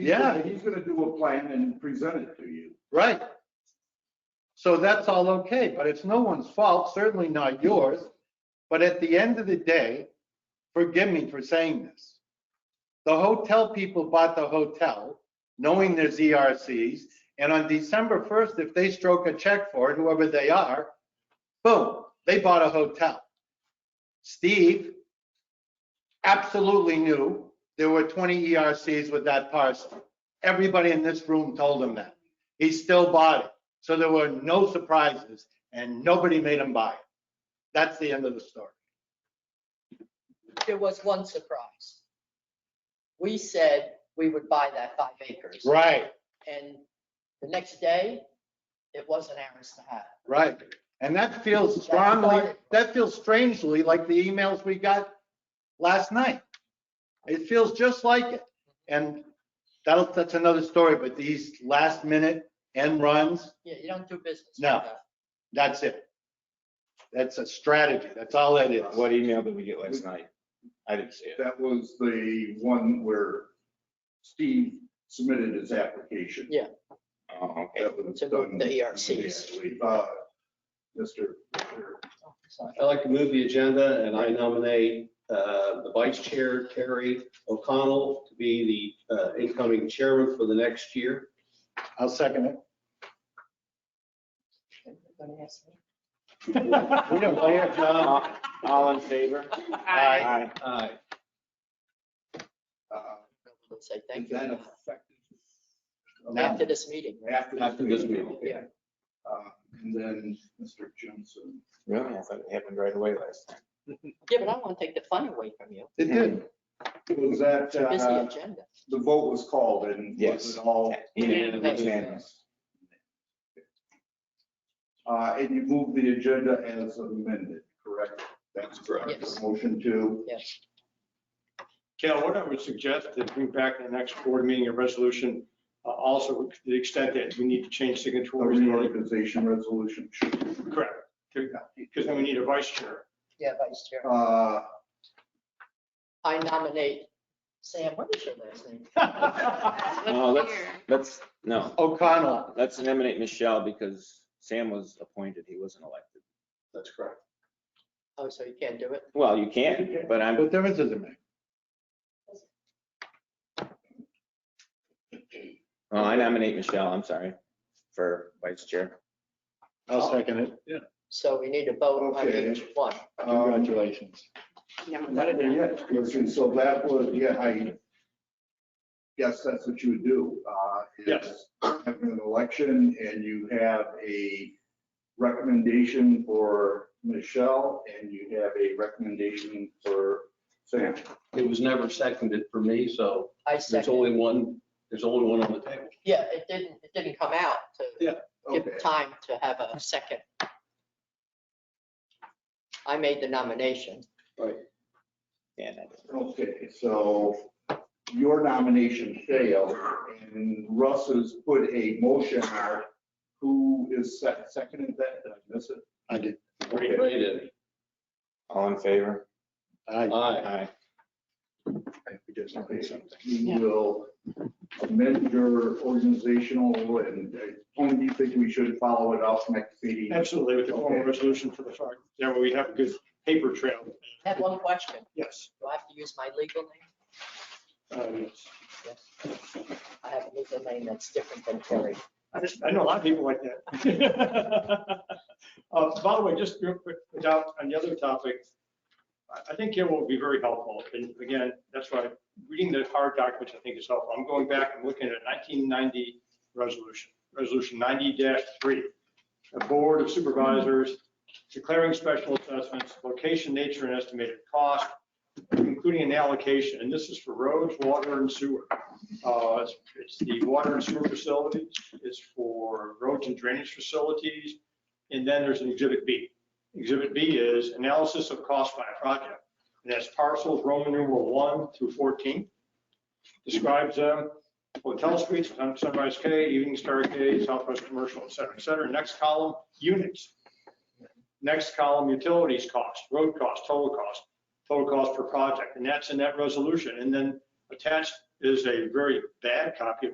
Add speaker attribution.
Speaker 1: He's
Speaker 2: Yeah.
Speaker 1: gonna- He's gonna do a plan and present it to you.
Speaker 2: Right. So that's all okay, but it's no one's fault, certainly not yours. But at the end of the day, forgive me for saying this. The hotel people bought the hotel knowing there's ERCs. And on December 1st, if they stroke a check for it, whoever they are, boom, they bought a hotel. Steve absolutely knew there were 20 ERCs with that parcel. Everybody in this room told him that. He still bought it. So there were no surprises and nobody made him buy it. That's the end of the story.
Speaker 3: There was one surprise. We said we would buy that five acres.
Speaker 2: Right,
Speaker 3: And the next day, it wasn't ours to have.
Speaker 2: right. And that feels strongly, that feels strangely like the emails we got last night. It feels just like it. And that'll, that's another story, but these last minute end runs,
Speaker 3: You, you don't do business. like
Speaker 2: No.
Speaker 3: that.
Speaker 2: that's it. That's a strategy. That's all that is.
Speaker 4: What email did we get last night? I didn't see it.
Speaker 1: That was the one where Steve submitted his application.
Speaker 3: Yeah.
Speaker 4: Oh, okay.
Speaker 1: That was
Speaker 3: To
Speaker 1: done
Speaker 3: the E ERCs.
Speaker 1: immediately by Mr.
Speaker 3: Oh, sorry.
Speaker 5: I'd like to move the agenda and I nominate uh, the vice chair, Terry O'Connell, to be the uh, incoming chairman for the next year.
Speaker 2: I'll second it.
Speaker 3: Everybody has to-
Speaker 2: We don't play it, John.
Speaker 4: All all in favor? Aye.
Speaker 5: Aye.
Speaker 1: Uh,
Speaker 3: Let's Say
Speaker 1: Is
Speaker 3: thank
Speaker 1: that
Speaker 3: you.
Speaker 1: effective?
Speaker 2: Now.
Speaker 3: After this meeting,
Speaker 5: After this meeting,
Speaker 1: okay.
Speaker 3: yeah.
Speaker 1: Uh, And then Mr. Johnson.
Speaker 4: Really? I thought it happened right away last time.
Speaker 3: Yeah, but I want to take the fun away from you.
Speaker 2: It did.
Speaker 1: Was that,
Speaker 3: It's a busy
Speaker 1: uh,
Speaker 3: agenda.
Speaker 1: the vote was called and was
Speaker 4: Yes.
Speaker 1: it all?
Speaker 3: Unanimous.
Speaker 4: Unanimous.
Speaker 1: Uh, And you moved the agenda as amended, correct? That's correct.
Speaker 3: Yes.
Speaker 1: Motion to,
Speaker 3: Yes.
Speaker 6: Cal, what I would suggest is bring back in the next board meeting a resolution, uh, also to the extent that we need to change
Speaker 1: the
Speaker 6: signatories.
Speaker 1: reorganization resolution.
Speaker 6: Correct, because then we need a vice chair.
Speaker 3: Yeah, Vice Chair.
Speaker 1: Uh,
Speaker 3: I nominate Sam, what is your last name?
Speaker 4: No, that's, that's, Uh, no,
Speaker 2: O'Connell.
Speaker 4: let's nominate Michelle because Sam was appointed. He wasn't elected.
Speaker 5: That's correct.
Speaker 3: Oh, so you can't do it?
Speaker 4: Well, you can, but I'm,
Speaker 2: What difference does it make?
Speaker 4: well, I nominate Michelle, I'm sorry, for vice chair.
Speaker 2: I'll second it.
Speaker 3: So we need to vote on
Speaker 1: Okay.
Speaker 3: each one.
Speaker 1: um,
Speaker 2: Congratulations.
Speaker 1: not there yet. Okay, um, So that was, yeah, I guess that's what you would do. uh, is
Speaker 6: Yes.
Speaker 1: Have an election and you have a recommendation for Michelle and you have a recommendation for Sam.
Speaker 5: It was never seconded for me, so
Speaker 3: I
Speaker 5: there's
Speaker 3: second.
Speaker 5: only one, there's only one on the table.
Speaker 3: Yeah, it didn't, it didn't come out to give
Speaker 1: Okay.
Speaker 3: time to have a second. I made the nomination.
Speaker 4: Yeah, that-
Speaker 1: Okay, so your nomination failed, and Russ has put a motion out. Who is sec- seconded that? Did I miss it?
Speaker 2: I did.
Speaker 1: Okay.
Speaker 5: Ray did.
Speaker 4: All in favor?
Speaker 2: I,
Speaker 5: Aye.
Speaker 4: Aye.
Speaker 2: we did something, something.
Speaker 1: You will amend your organizational, and when do you think we should follow it up next meeting?
Speaker 6: Absolutely, with the formal resolution for the fact, that we have a good paper trail.
Speaker 3: I Had one question.
Speaker 6: Yes.
Speaker 3: Do I have to use my legal name?
Speaker 6: uh, yes.
Speaker 3: I have a legal name that's different than Terry.
Speaker 6: I just, I know a lot of people like that. Uh, By the way, just real quick, without, on the other topic, I- I think it will be very helpful. And again, that's why reading the hard documents, I think is helpful. I'm going back and looking at 1990 resolution, resolution 90-3. A board of supervisors declaring special assessments, location, nature, and estimated cost, including an allocation. And this is for roads, water, and sewer. Uh, It's it's the water and sewer facilities, it's for roads and drainage facilities, and then there's an exhibit B. Exhibit B is analysis of cost by project, and that's parcels Roman numeral one through 14. Describes them, hotel suites, Sun- Sunrise K, Evening Star K, Southwest Commercial, et cetera, et cetera. Next column, units. Next column, utilities cost, road cost, total cost, total cost per project, and that's in that resolution. And then attached is a very bad copy of